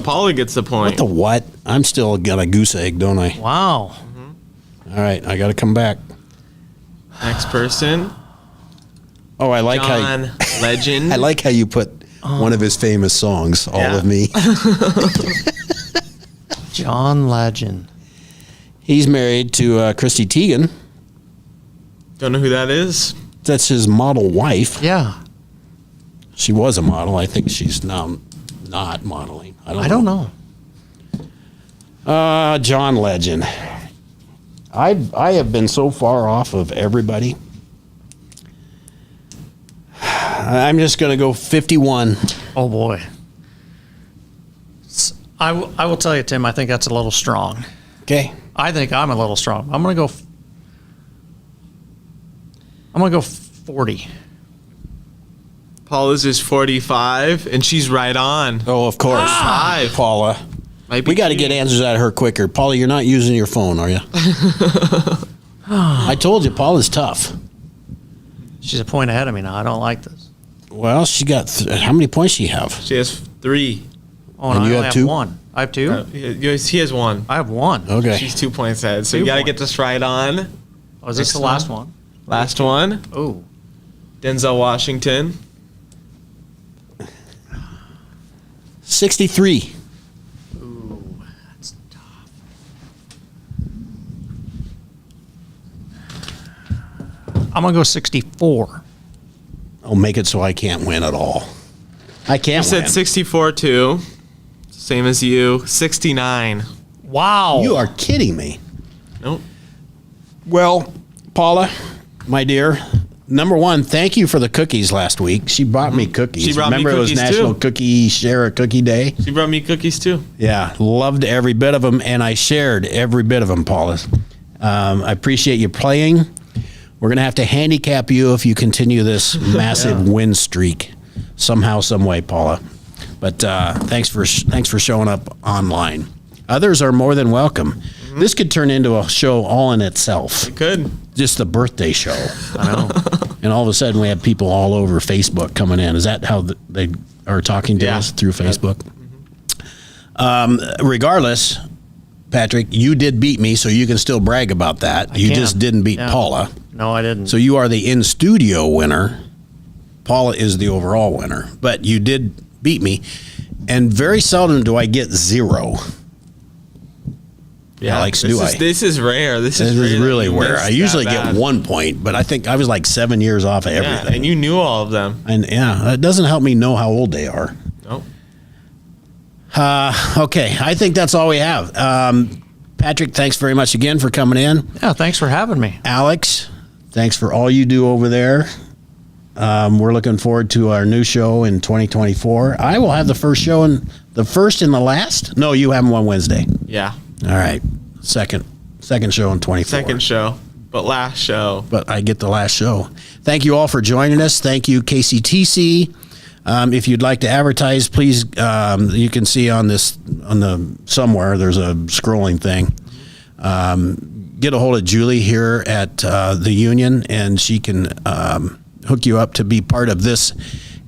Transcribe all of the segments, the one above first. Paula gets the point. The what? I'm still got a goose egg, don't I? Wow. All right, I got to come back. Next person, Oh, I like how John Legend. I like how you put one of his famous songs, "All Yeah. of Me." John Legend. He's married to uh, Christy Teigen. Don't know who that is. That's his model wife. Yeah. She was a model. I think she's now not modeling. I don't. I don't know. Uh, John Legend. I I have been so far off of everybody. I'm just gonna go 51. Oh boy. S- I, w- I will tell you, Tim. I think that's a little strong. Okay. I think I'm a little strong. I'm gonna go. F- I'm gonna go forty. Paula's is 45, and she's right on. Oh, of course, Five. Paula. Might be We got to cheating. get answers out of her quicker. Paula, you're not using your phone, are you? I told you, Paula's tough. She's a point ahead of me now. I don't like this. Well, she got th- how many points? She have? She has three. Oh, and, And I you only have have two? one. I have two. Uh, He he has one. I have one. Okay. She's two points ahead. So Two you got to get points. this right on. Oh, is this the Next last one? Last one, Oh, Denzel Washington. 63. that's tough. I'm gonna go sixty-four. I'll Oh, make it so I can't win at all. I can't. I said win. 64 too. Same as you. 69. Wow. You are kidding me. Nope. Well, Paula, my dear, number one, thank you for the cookies last week. She brought me cookies. Mm-hmm. She brought me Remember it was cookies, National too. Cookie Share a Cookie Day? She brought me cookies too. Yeah, loved every bit of them, and I shared every bit of them, Paula. Um, I appreciate you playing. We're gonna have to handicap you if you continue this massive win streak somehow, some way, Paula. But uh, thanks for thanks for showing up online. Others are more than welcome. This could turn into a show all in itself, Good. just the birthday show, I know. and all of a sudden we have people all over Facebook coming in. Is that how th- they are talking to Yeah. us through Facebook? Um, regardless, Patrick, you did beat me, so you can still brag about that. you can. just didn't beat Yeah. Paula. No, I didn't. So you are the in studio winner. Paula is the overall winner, but you did beat me. And very seldom do I get zero. Yeah, Alex, this do is, I? This is rare. This, This is, is rare that really you where missed I usually that get bad. one point, but I think I was like seven years off of Yeah, everything. and you knew all of them. and yeah, it doesn't help me know how old they are. Nope. Okay, I think that's all we have. Um, Patrick, thanks very much again for coming in. yeah, thanks for having me. Alex, thanks for all you do over there. Um, we're looking forward to our new show in 2024. I will have the first show in the first and the last. No, you have them on Wednesday. Yeah. All right, second second show in 24. Second show, but last show. but I get the last show. Thank you all for joining us. Thank you, KCTC. Um, if you'd like to advertise, please, um, you can see on this on the somewhere there's a scrolling thing. Um, get a hold of Julie here at uh, the union, and she can um, hook you up to be part of this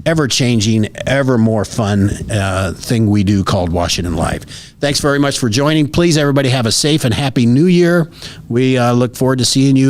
ever changing, ever more fun uh, thing we do called Washington Live. Thanks very much for joining. Please, everybody, have a safe and happy New Year. We uh, look forward to seeing you.